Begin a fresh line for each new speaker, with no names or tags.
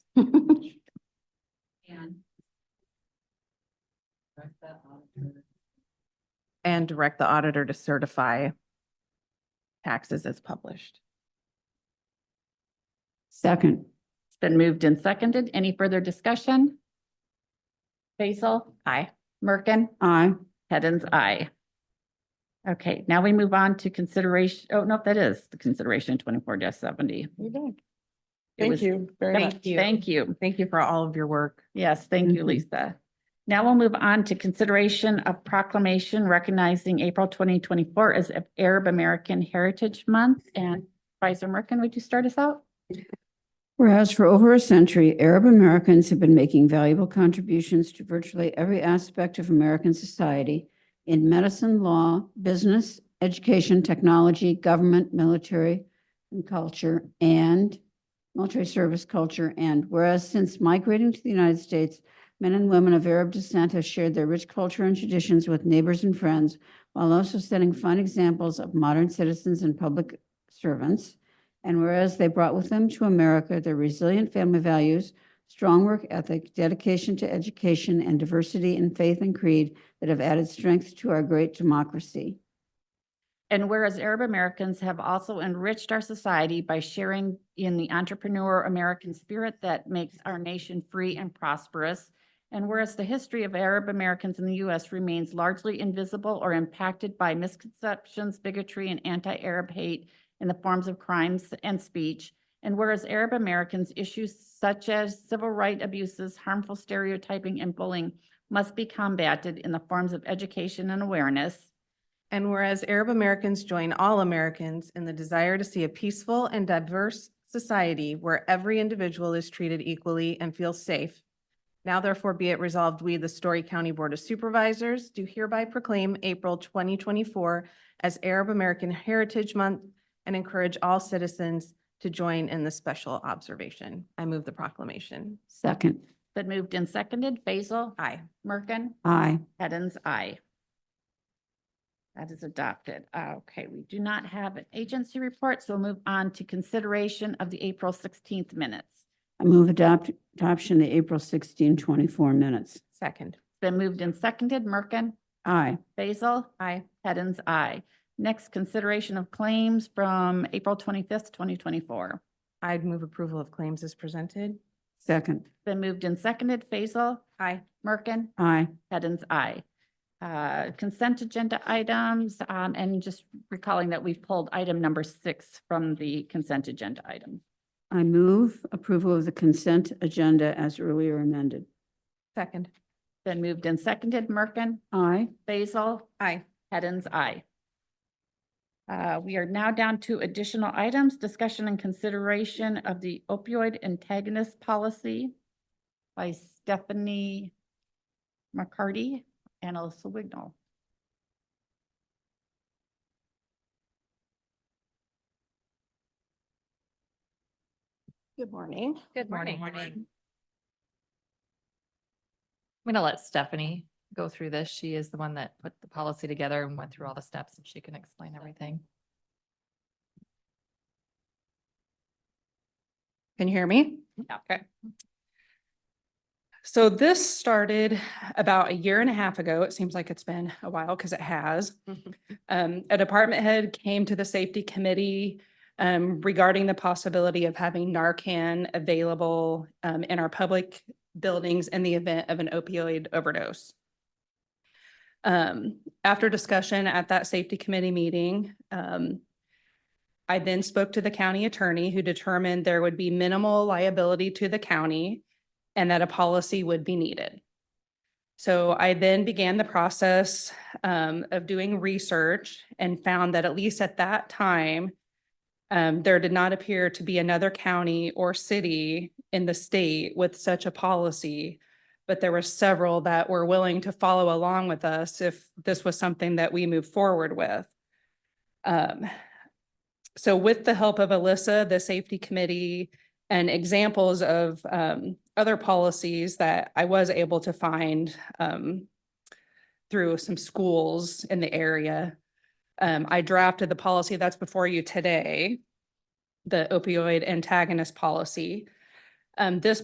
And. Correct that auditor.
and direct the auditor to certify taxes as published.
Second.
It's been moved and seconded. Any further discussion? Basil?
Aye.
Merkin?
Aye.
Hens, aye. Okay, now we move on to consideration, oh, no, that is the consideration twenty-four seventy.
Thank you very much.
Thank you.
Thank you.
Thank you for all of your work.
Yes, thank you,
Mhm.
Lisa. Now we'll move on to consideration of proclamation recognizing April twenty twenty-four as Arab American Heritage Month. And Vice Merkin, would you start us out?
Whereas for over a century, Arab Americans have been making valuable contributions to virtually every aspect of American society in medicine, law, business, education, technology, government, military, and culture, and military service culture. And whereas since migrating to the United States, men and women of Arab descent have shared their rich culture and traditions with neighbors and friends, while also setting fine examples of modern citizens and public servants. And whereas they brought with them to America their resilient family values, strong work ethic, dedication to education, and diversity in faith and creed that have added strength to our great democracy.
And whereas Arab Americans have also enriched our society by sharing in the entrepreneur American spirit that makes our nation free and prosperous. And whereas the history of Arab Americans in the US remains largely invisible or impacted by misconceptions, bigotry, and anti-Arab hate in the forms of crimes and speech. And whereas Arab Americans issues such as civil rights abuses, harmful stereotyping, and bullying must be combated in the forms of education and awareness.
And whereas Arab Americans join all Americans in the desire to see a peaceful and diverse society where every individual is treated equally and feels safe. Now therefore be it resolved, we, the Story County Board of Supervisors, do hereby proclaim April twenty twenty-four as Arab American Heritage Month and encourage all citizens to join in this special observation. I move the proclamation.
Second,
Been moved and seconded. Basil?
Aye.
Merkin?
aye.
Hens, aye. That is adopted. Uh, Okay, we do not have an agency report, so we'll move on to consideration of the April sixteenth minutes.
I move adopt, adoption of April 16, 24 minutes.
Second.
It's Been moved and seconded. Merkin?
Aye.
Basil?
Aye.
Hens, aye. Next, consideration of claims from April twenty-fifth, twenty twenty-four.
I'd move approval of claims as presented.
Second,
Been moved and seconded. Basil?
Aye.
Merkin?
aye.
Hens, aye. Uh, Consent agenda items, um, and just recalling that we've pulled item number six from the consent agenda item.
I move approval of the consent agenda as earlier amended.
Second.
Then moved and seconded, Merkin,
Aye.
Basil,
Aye.
Hens, aye. Uh, we are now down to additional items, discussion and consideration of the opioid antagonist policy by Stephanie McCarty and Alyssa Wignall.
Good morning.
Good morning.
Morning.
I'm gonna let Stephanie go through this. She is the one that put the policy together and went through all the steps and she can explain everything.
Can you hear me?
Okay.
So this started about a year and a half ago. It seems like it's been a while because it has. Um, a department head came to the safety committee um, regarding the possibility of having Narcan available um, in our public buildings in the event of an opioid overdose. Um, after discussion at that safety committee meeting, um, I then spoke to the county attorney who determined there would be minimal liability to the county and that a policy would be needed. So I then began the process um, of doing research and found that at least at that time, um, there did not appear to be another county or city in the state with such a policy. But there were several that were willing to follow along with us if this was something that we moved forward with. Um, so with the help of Alyssa, the safety committee, and examples of um, other policies that I was able to find um, through some schools in the area. Um, I drafted the policy that's before you today, the opioid antagonist policy. Um, This